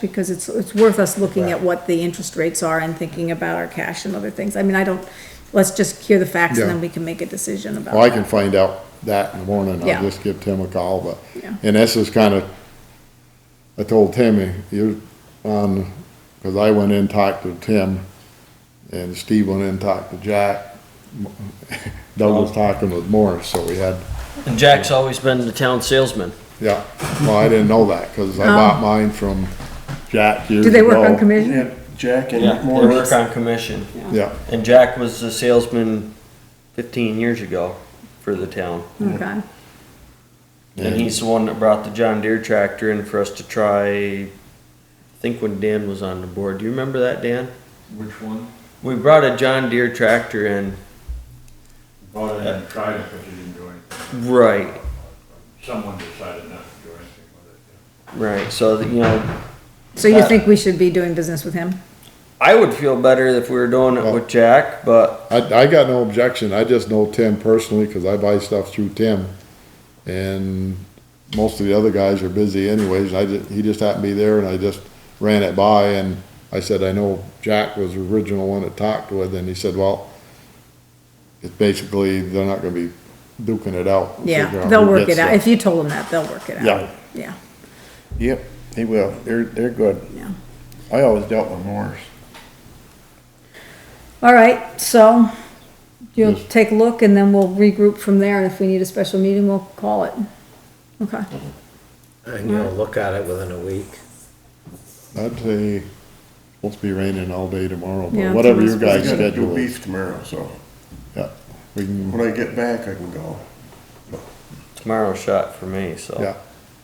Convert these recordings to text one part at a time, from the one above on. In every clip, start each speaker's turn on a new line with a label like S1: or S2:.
S1: because it's, it's worth us looking at what the interest rates are and thinking about our cash and other things. I mean, I don't, let's just hear the facts and then
S2: Yeah.
S1: we can make a decision about
S2: Well, I can
S1: that.
S2: find out that in the morning,
S1: Yeah.
S2: I'll just give Tim a call, but,
S1: Yeah.
S2: and this is kinda, I told Timmy, you're on, cause I went in and talked to Tim, and Steve went in and talked to Jack. Doug was talking with Morris, so we had,
S3: And Jack's always been the town salesman.
S2: yeah, well, I didn't know that, cause I bought mine from Jack years
S1: Oh. Do
S2: ago.
S1: they work on commission?
S4: Yeah, Jack
S3: Yeah,
S4: and
S3: they work
S4: Morris.
S3: on commission.
S2: Yeah,
S3: And Jack was a salesman fifteen years ago for the town.
S1: Okay,
S3: And he's the one that brought the John Deere tractor in for us to try, I think when Dan was on the board. Do you remember that, Dan?
S5: Which one?
S3: We brought a John Deere tractor in.
S5: Bought it and tried it, but you didn't do anything.
S3: Right,
S5: Someone decided not to do anything with it.
S3: right. So, that, you know,
S1: so you think we should be doing business with him?
S3: I would feel better if we were doing it with Jack, but
S2: I, I got no objection, I just know Tim personally, cause I buy stuff through Tim, and most of the other guys are busy anyways, and I just, he just happened to be there, and I just ran it by, and I said, I know Jack was the original one that talked with, and he said, well, it's basically, they're not gonna be duking it out. figure
S1: Yeah,
S2: out
S1: they'll
S2: who
S1: work it
S2: gets
S1: out.
S2: it.
S1: If you told them that, they'll work it out.
S2: Yeah.
S1: Yeah,
S4: Yep, they will. They're, they're good.
S1: yeah.
S4: I always dealt with Morris.
S1: All right, so you'll
S2: Yes.
S1: take a look and then we'll regroup from there and if we need a special meeting, we'll call it. Okay,
S6: I can go look at it within a week.
S2: I'd say, supposed to be raining all day tomorrow,
S1: Yeah,
S2: but whatever your
S4: I
S2: guys'
S4: gotta do
S2: schedule is,
S4: beef tomorrow, so
S2: yeah, we can,
S4: when I get back, I can go.
S3: tomorrow's shot for me, so.
S2: yeah.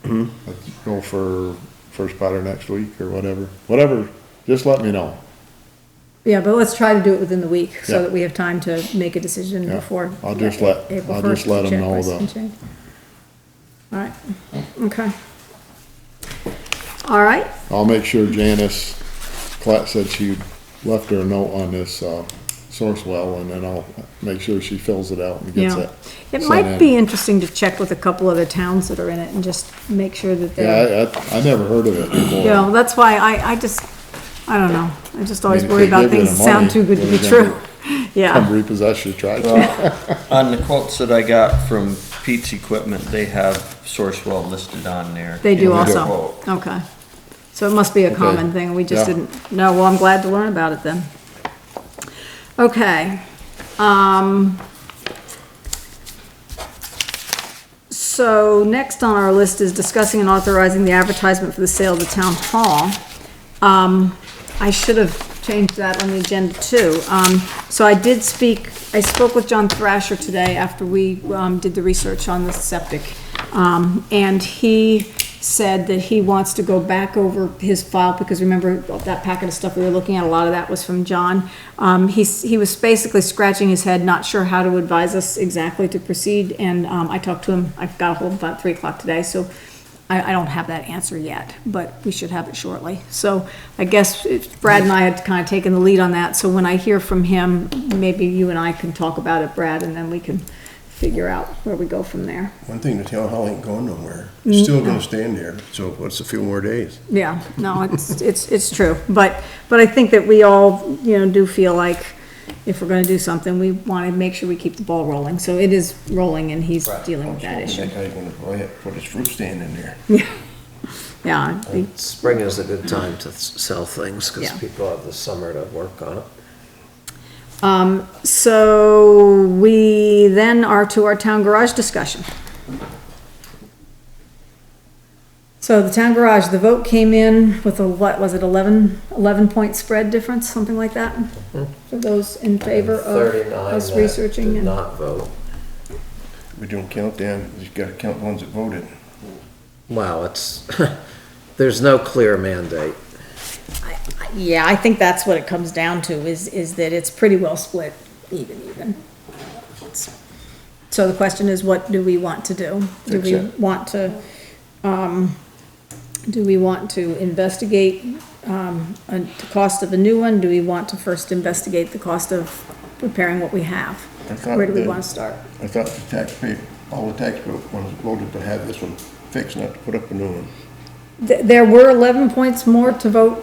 S2: Let's go for first spotter next week or whatever, whatever, just let me know.
S1: yeah, but let's try to do it within the week
S2: Yeah.
S1: so that we have time to make a decision
S2: Yeah.
S1: before.
S2: I'll just let-
S1: April
S2: I'll just
S1: 1st,
S2: let 'em
S1: check
S2: know
S1: price
S2: the-
S1: and change. All right, okay. All right,
S2: I'll make sure Janice, Clat said she left her a note on this, uh, source well, and then I'll make sure she fills it out and gets
S1: yeah.
S2: it.
S1: It
S2: sent
S1: might
S2: in.
S1: be interesting to check with a couple other towns that are in it and just make sure that they're.
S2: Yeah, I, I, I never heard of it before.
S1: You know, that's why I, I just, I don't know, I just always
S2: mean, if
S1: worry
S2: they
S1: about
S2: give you
S1: things
S2: the
S1: that sound
S2: money,
S1: too good to
S2: what
S1: be
S2: are you gonna
S1: true.
S2: Come
S1: Yeah,
S2: repossess your tractor.
S3: On Uh, the quotes that I got from Pete's Equipment, they have Sourcewell listed on there.
S1: they do
S3: in the
S1: also,
S3: quote.
S1: okay. So it must be a common thing, we just
S2: Yeah.
S1: didn't know, well, I'm glad to learn about it then. Okay, um. So next on our list is discussing and authorizing the advertisement for the sale of the town hall. Um, I should have changed that on the agenda too. Um, so I did speak, I spoke with John Thrasher today after we, um, did the research on the septic. Um, and he said that he wants to go back over his file, because remember that packet of stuff we were looking at, a lot of that was from John. Um, he's, he was basically scratching his head, not sure how to advise us exactly to proceed, and, um, I talked to him, I got a hold of him about three o'clock today, so I, I don't have that answer yet, but we should have it shortly. So I guess if Brad and I had kind of taken the lead on that, so when I hear from him, maybe you and I can talk about it, Brad, and then we can figure out where we go from there.
S4: One thing, the town hall ain't going nowhere. It's still gonna stand there, so what's a few more days?
S1: Yeah, no, it's, it's, it's true, but, but I think that we all, you know, do feel like if we're gonna do something, we want to make sure we keep the ball rolling, so it is rolling and he's dealing with that issue.
S4: That guy's gonna go ahead and put his fruit stand in there.
S1: Yeah, I think-
S6: Spring is a good time to s- sell things because
S1: Yeah.
S6: people have the summer to work on it.
S1: Um, so we then are to our town garage discussion. So the town garage, the vote came in with a, what was it, 11 11 point spread difference, something like that? For those in favor of
S6: Hmm. Thirty-nine
S1: us
S6: that
S1: researching
S6: did
S1: and.
S6: not vote.
S4: We don't count them, you just gotta count the ones that voted.
S6: Wow, it's, there's no clear mandate.
S1: Yeah, I think that's what it comes down to, is, is that it's pretty well split, even, even. It's- So the question is, what do we want to do? Do we
S4: Exact-
S1: want to, um, do we want to investigate, um, a- the cost of a new one? Do we want to first investigate the cost of repairing what we have?
S4: I thought
S1: Where do we
S4: that-
S1: wanna start?
S4: I thought the taxpayer, all the taxpayer ones voted to have this one fixed, not to put up a new one.
S1: th- there were eleven points more to vote